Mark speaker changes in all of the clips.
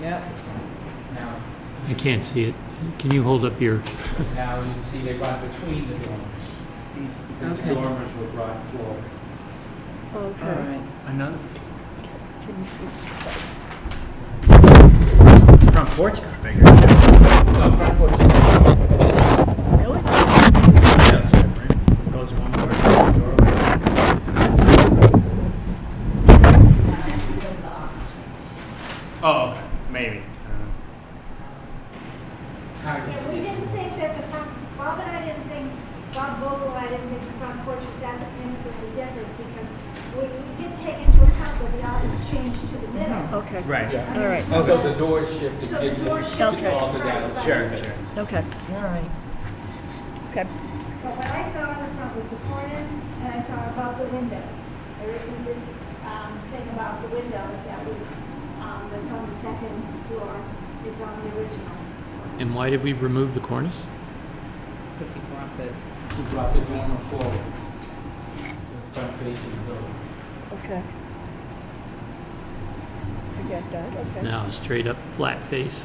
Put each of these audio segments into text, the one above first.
Speaker 1: Yep.
Speaker 2: Now,
Speaker 3: I can't see it. Can you hold up your,
Speaker 2: now you see they run between the dormers, because
Speaker 1: Okay.
Speaker 2: the dormers were brought forward.
Speaker 1: All
Speaker 4: Okay,
Speaker 1: right.
Speaker 4: another,
Speaker 5: Let me see.
Speaker 4: front porch got bigger. Yeah,
Speaker 2: No, front porch is
Speaker 5: Really?
Speaker 4: it's different. Goes one more door. Oh, okay, maybe. Uh,
Speaker 2: kind
Speaker 6: Yeah,
Speaker 2: of-
Speaker 6: we didn't think that the front, Bob and I didn't think, Bob Vogel, I didn't think the front porch was that significantly different because we we did take into account that the aisles changed to the middle.
Speaker 5: Okay.
Speaker 4: Right,
Speaker 2: Yeah.
Speaker 5: All right.
Speaker 2: So the door shifted,
Speaker 6: So the
Speaker 2: didn't
Speaker 6: door
Speaker 2: it?
Speaker 6: shifted.
Speaker 2: Alter that.
Speaker 4: sure, sure.
Speaker 5: Okay.
Speaker 1: All right.
Speaker 5: Okay.
Speaker 6: But what I saw on the front was the cornice and I saw above the windows. There isn't this um, thing about the windows that was, um, that's on the second floor. It's on the original.
Speaker 3: and why did we remove the cornice?
Speaker 1: Because he dropped it.
Speaker 2: You brought the dormer forward, the front facing the building.
Speaker 5: Okay. Forget that.
Speaker 3: It's
Speaker 5: Okay.
Speaker 3: now a straight up flat face.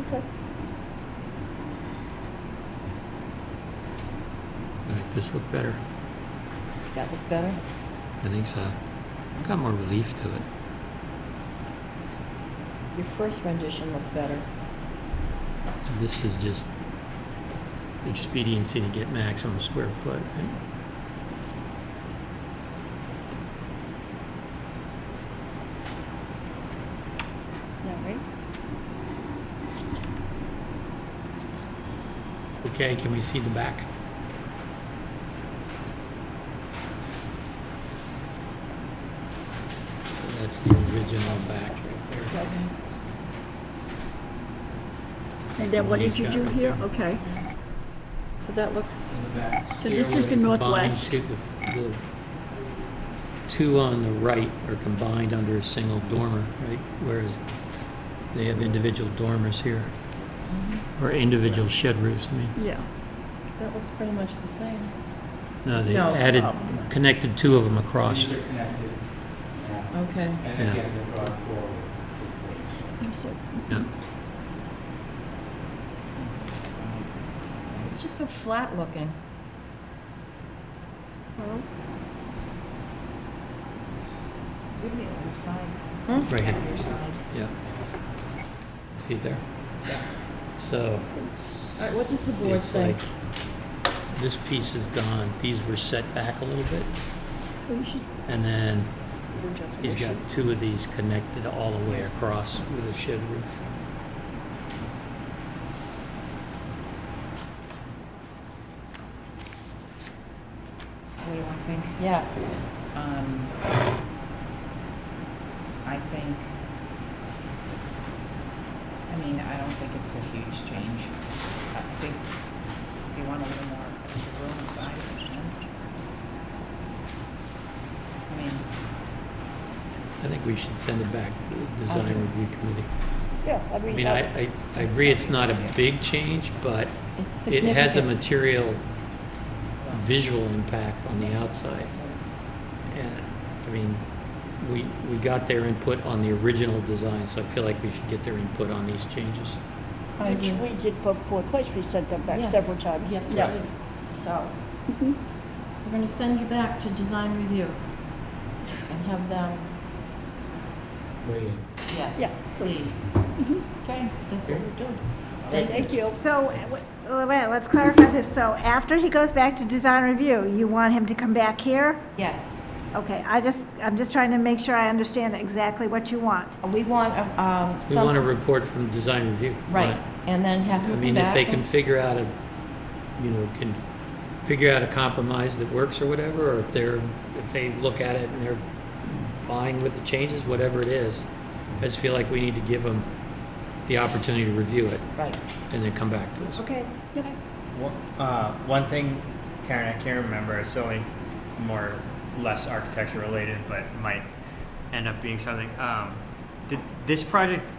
Speaker 5: Okay.
Speaker 3: Make this look better.
Speaker 1: That look better?
Speaker 3: I think so. I've got more relief to it.
Speaker 1: Your first rendition looked better.
Speaker 3: This is just expediency to get maximum square foot. right?
Speaker 5: All right.
Speaker 3: Okay, can we see the back? That's the original back right there.
Speaker 5: And then what did
Speaker 3: He's
Speaker 5: you
Speaker 3: got
Speaker 5: do
Speaker 3: it
Speaker 5: here?
Speaker 3: there.
Speaker 5: Okay.
Speaker 1: So that looks,
Speaker 2: In the back.
Speaker 5: So this is the
Speaker 3: Stairway combined
Speaker 5: northwest.
Speaker 3: to the- the Two on the right are combined under a single dormer, right? Whereas they have individual dormers here,
Speaker 5: Mm-hmm.
Speaker 3: or individual shed roofs, I mean.
Speaker 5: Yeah.
Speaker 1: that looks pretty much the same.
Speaker 3: No, they
Speaker 1: No,
Speaker 3: added,
Speaker 1: oh.
Speaker 3: connected two of them across.
Speaker 2: These are connected. Yeah.
Speaker 1: Okay.
Speaker 2: And
Speaker 3: Yeah.
Speaker 2: again, they brought forward.
Speaker 5: That's it.
Speaker 3: Yeah.
Speaker 1: It's just so flat looking.
Speaker 5: Well,
Speaker 7: Wouldn't it on the side?
Speaker 1: Hmm?
Speaker 3: Right here.
Speaker 7: On your side.
Speaker 3: Yeah. See it there? So
Speaker 1: All right, what does the board
Speaker 3: it's
Speaker 1: say?
Speaker 3: like, this piece is gone, these were set back a little bit,
Speaker 5: we should-
Speaker 3: and then
Speaker 5: we should-
Speaker 3: he's got two of these connected all the way across with a shed roof.
Speaker 7: What do I think?
Speaker 1: Yeah.
Speaker 7: Um, I think, I mean, I don't think it's a huge change. I think if you want a little more extra room inside, it makes sense. I mean,
Speaker 3: I think we should send it back to the design review committee.
Speaker 5: Yeah, I
Speaker 3: I
Speaker 5: mean,
Speaker 3: mean, I,
Speaker 5: I-
Speaker 3: I, I agree it's not a big change, but
Speaker 1: It's
Speaker 3: it has a
Speaker 1: significant.
Speaker 3: material visual impact on the outside. And, I mean, we, we got their input on the original design, so I feel like we should get their input on these changes.
Speaker 1: I
Speaker 5: which
Speaker 1: agree.
Speaker 5: we did for Four Place, we sent them back
Speaker 1: Yes.
Speaker 5: several times.
Speaker 1: Yes, Mm-hmm. we
Speaker 5: Yeah.
Speaker 1: did. So, we're going to send you back to design review and have them,
Speaker 5: Yeah,
Speaker 1: yes,
Speaker 5: please.
Speaker 1: please. Mm-hmm. Okay, that's what we're doing.
Speaker 5: Thank you.
Speaker 6: So, uh, wait, wait, wait, let's clarify this. So after he goes back to design review, you want him to come back here?
Speaker 7: yes.
Speaker 6: Okay, I just, I'm just trying to make sure I understand exactly what you want.
Speaker 7: We want, um,
Speaker 3: We want a report from design review. on
Speaker 1: Right,
Speaker 3: it.
Speaker 1: and then have
Speaker 3: I
Speaker 1: them come
Speaker 3: mean, if
Speaker 1: back.
Speaker 3: they can
Speaker 1: and-
Speaker 3: figure out a, you know, can figure out a compromise that works or whatever, or if they're, if they look at it and they're fine with the changes, whatever it is, I just feel like we need to give them the opportunity to review it
Speaker 1: Right.
Speaker 3: and then come back to us.
Speaker 6: Okay,
Speaker 4: One- uh, one thing, Karen, I can't remember. It's only more less architecture related, but might end up being something. Um, did this project